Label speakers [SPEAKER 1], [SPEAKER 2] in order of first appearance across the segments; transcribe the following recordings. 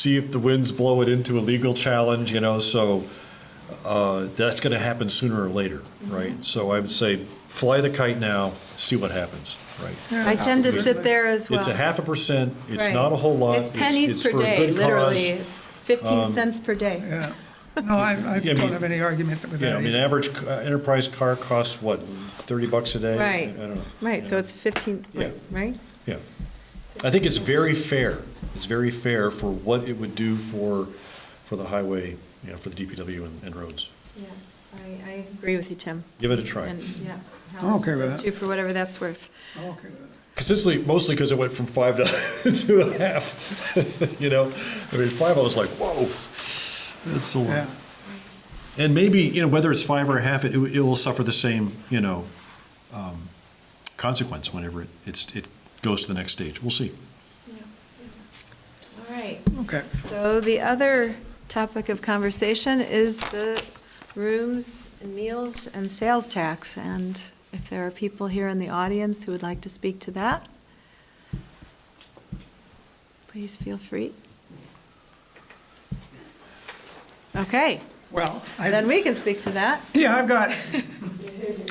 [SPEAKER 1] see if the winds blow it into a legal challenge, you know, so uh, that's going to happen sooner or later,
[SPEAKER 2] Mm-hmm.
[SPEAKER 1] right? So I would say fly the kite now, see what happens, right?
[SPEAKER 2] I tend to sit there as well.
[SPEAKER 1] It's a half a percent, it's
[SPEAKER 2] Right.
[SPEAKER 1] not a whole lot.
[SPEAKER 2] It's pennies
[SPEAKER 1] it's
[SPEAKER 2] per
[SPEAKER 1] for a
[SPEAKER 2] day,
[SPEAKER 1] good
[SPEAKER 2] literally.
[SPEAKER 1] cause. Um,
[SPEAKER 2] It's 15 cents per day.
[SPEAKER 3] Yeah. No, I, I
[SPEAKER 1] Yeah, I
[SPEAKER 3] don't
[SPEAKER 1] mean-
[SPEAKER 3] have any argument with
[SPEAKER 1] Yeah, I mean,
[SPEAKER 3] that.
[SPEAKER 1] average c- uh, enterprise car costs, what, 30 bucks a day?
[SPEAKER 2] Right.
[SPEAKER 1] I don't know.
[SPEAKER 2] Right, so it's 15,
[SPEAKER 1] Yeah.
[SPEAKER 2] right?
[SPEAKER 1] Yeah. I think it's very fair. It's very fair for what it would do for, for the highway, you know, for the DPW and- and roads.
[SPEAKER 2] Yeah, I, I agree with you, Tim.
[SPEAKER 1] Give it a try.
[SPEAKER 2] And, yeah.
[SPEAKER 3] I'm okay with that.
[SPEAKER 2] Two for whatever that's worth.
[SPEAKER 3] I'm okay with that.
[SPEAKER 1] Consistently, mostly because it went from five to two and a half, you know? I mean, five, I was like, whoa, that's a lot.
[SPEAKER 3] Yeah.
[SPEAKER 1] And maybe, you know, whether it's five or a half, it, it will suffer the same, you know, um, consequence whenever it, it's, it goes to the next stage. We'll see.
[SPEAKER 2] All right.
[SPEAKER 3] Okay.
[SPEAKER 2] So the other topic of conversation is the rooms and meals and sales tax. And if there are people here in the audience who would like to speak to that, please feel free. Okay,
[SPEAKER 3] Well,
[SPEAKER 2] then
[SPEAKER 3] I,
[SPEAKER 2] we can speak to that.
[SPEAKER 3] yeah, I've got,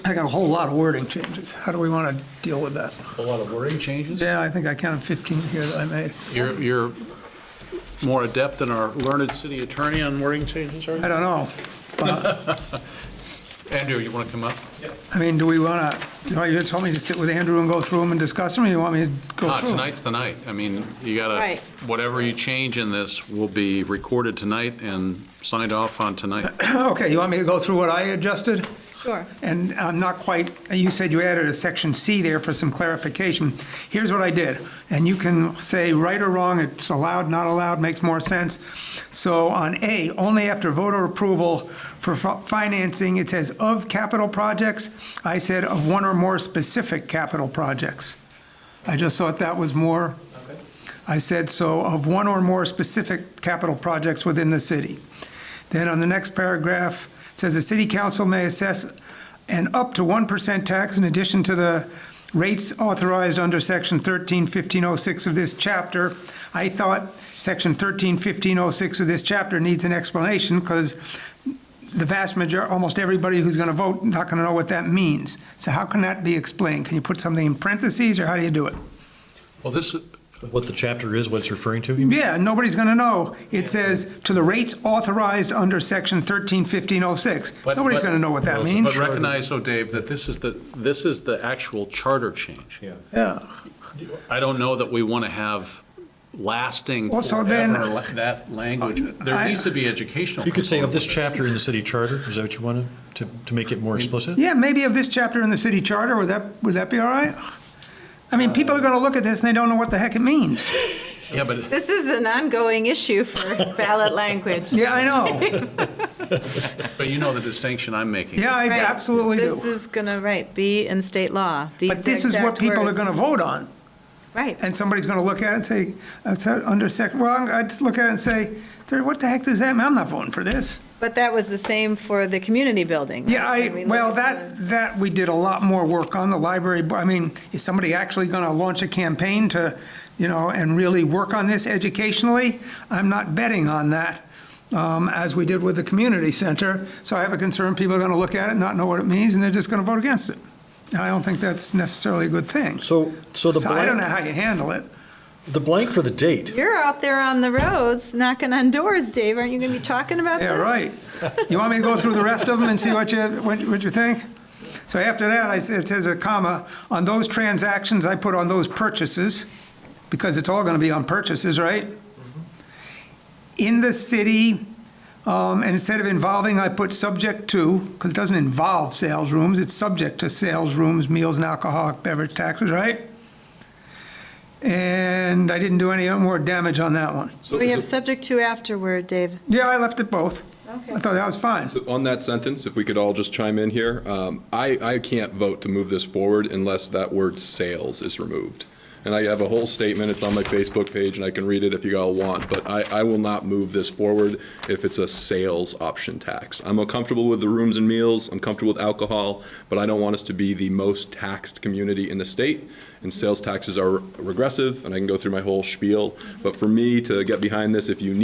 [SPEAKER 3] I got a whole lot of wording changes. How do we want to deal with that?
[SPEAKER 4] A lot of wording changes?
[SPEAKER 3] Yeah, I think I counted 15 here that I made.
[SPEAKER 4] You're, you're more adept than our learned city attorney on wording changes, are
[SPEAKER 3] I
[SPEAKER 4] you?
[SPEAKER 3] don't know. But,
[SPEAKER 4] Andrew, you want to come up?
[SPEAKER 3] I mean, do we want to, you know, you told me to sit with Andrew and go through them and discuss them, or you want me to go
[SPEAKER 4] Ah,
[SPEAKER 3] through? them?
[SPEAKER 4] Tonight's the night. I mean, you gotta,
[SPEAKER 2] Right.
[SPEAKER 4] whatever you change in this will be recorded tonight and signed off on tonight.
[SPEAKER 3] Okay, you want me to go through what I adjusted?
[SPEAKER 2] Sure.
[SPEAKER 3] And I'm not quite, you said you added a section C there for some clarification. Here's what I did, and you can say right or wrong, it's allowed, not allowed, makes more sense. So on A, only after voter approval for fi- financing, it says of capital projects. I said of one or more specific capital projects. I just thought that was more, I said so, of one or more specific capital projects within the city. Then on the next paragraph, it says the city council may assess an up to 1% tax in addition to the rates authorized under section 131506 of this chapter. I thought section 131506 of this chapter needs an explanation because the vast major, almost everybody who's going to vote not going to know what that means. So how can that be explained? Can you put something in parentheses or how do you do it?
[SPEAKER 4] Well, this, is-
[SPEAKER 1] What the chapter is, what it's referring to, you mean?
[SPEAKER 3] Yeah, nobody's going to know. It says to the rates authorized under section 131506.
[SPEAKER 4] But-
[SPEAKER 3] Nobody's
[SPEAKER 4] but-
[SPEAKER 3] going to know what that
[SPEAKER 1] Well, it's-
[SPEAKER 3] means.
[SPEAKER 4] but recognize, though, Dave, that this is the, this is the actual charter change.
[SPEAKER 1] Yeah.
[SPEAKER 3] Yeah.
[SPEAKER 4] I don't know that we want to have lasting
[SPEAKER 3] Well, so then-
[SPEAKER 4] forever la- that language. There
[SPEAKER 3] I-
[SPEAKER 4] needs to be educational.
[SPEAKER 1] You could say of this
[SPEAKER 4] component
[SPEAKER 1] chapter in the city charter, is that what you wanted, to, to make it more explicit?
[SPEAKER 3] Yeah, maybe of this chapter in the city charter, would that, would that be all right? I mean, people are going to look at this and they don't know what the heck it means.
[SPEAKER 4] with this. Yeah, but
[SPEAKER 2] This is an ongoing issue for ballot language.
[SPEAKER 3] Yeah, I know.
[SPEAKER 4] But you know the distinction I'm making.
[SPEAKER 3] Yeah, I
[SPEAKER 2] Right.
[SPEAKER 3] absolutely
[SPEAKER 2] This
[SPEAKER 3] do.
[SPEAKER 2] is gonna, right, be in state law. These
[SPEAKER 3] But this is what
[SPEAKER 2] exact
[SPEAKER 3] people are
[SPEAKER 2] words.
[SPEAKER 3] going to vote on.
[SPEAKER 2] Right.
[SPEAKER 3] And somebody's going to look at it and say, that's under sec, well, I'm- I'd just look at it and say, "There- what the heck does that mean? I'm not voting for this.
[SPEAKER 2] But that was the same for the community building.
[SPEAKER 3] Yeah,
[SPEAKER 2] right?
[SPEAKER 3] I,
[SPEAKER 2] When we
[SPEAKER 3] well,
[SPEAKER 2] looked at
[SPEAKER 3] that, that, we did a lot more work on the library. bo- I mean, is somebody actually going to launch a campaign to, you know, and really work on this educationally? I'm not betting on that, um, as we did with the community center. So I have a concern, people are going to look at it, not know what it means, and they're just going to vote against it. And I don't think that's necessarily a good thing.
[SPEAKER 1] So, so the
[SPEAKER 3] So I don't know
[SPEAKER 1] blank,
[SPEAKER 3] how you handle it.
[SPEAKER 1] the blank for the date,
[SPEAKER 2] You're out there on the roads knocking on doors, Dave. Aren't you gonna be talking about
[SPEAKER 3] Yeah,
[SPEAKER 2] this?
[SPEAKER 3] right. You want me to go through the rest of them and see what you, what what you think? So after that, I said, it says a comma, on those transactions, I put on those purchases, because it's all gonna be on purchases, right? In the city, um, and instead of involving, I put subject to, because it doesn't involve sales rooms, it's subject to sales rooms, meals and alcoholic beverage taxes, right? And I didn't do any more damage on that one.
[SPEAKER 2] We have subject to afterward, Dave.
[SPEAKER 3] Yeah, I left it both.
[SPEAKER 2] Okay.
[SPEAKER 3] I thought that was fine.
[SPEAKER 5] So On that sentence, if we could all just chime in here, um, I, I can't vote to move this forward unless that word sales is removed. And I have a whole statement, it's on my Facebook page, and I can read it if you all want, but I, I will not move this forward if it's a sales option tax. I'm uncomfortable with the rooms and meals, I'm comfortable with alcohol, but I don't want us to be the most taxed community in the state, and sales taxes are regressive, and I can go through my whole spiel. But for me to get behind this, if you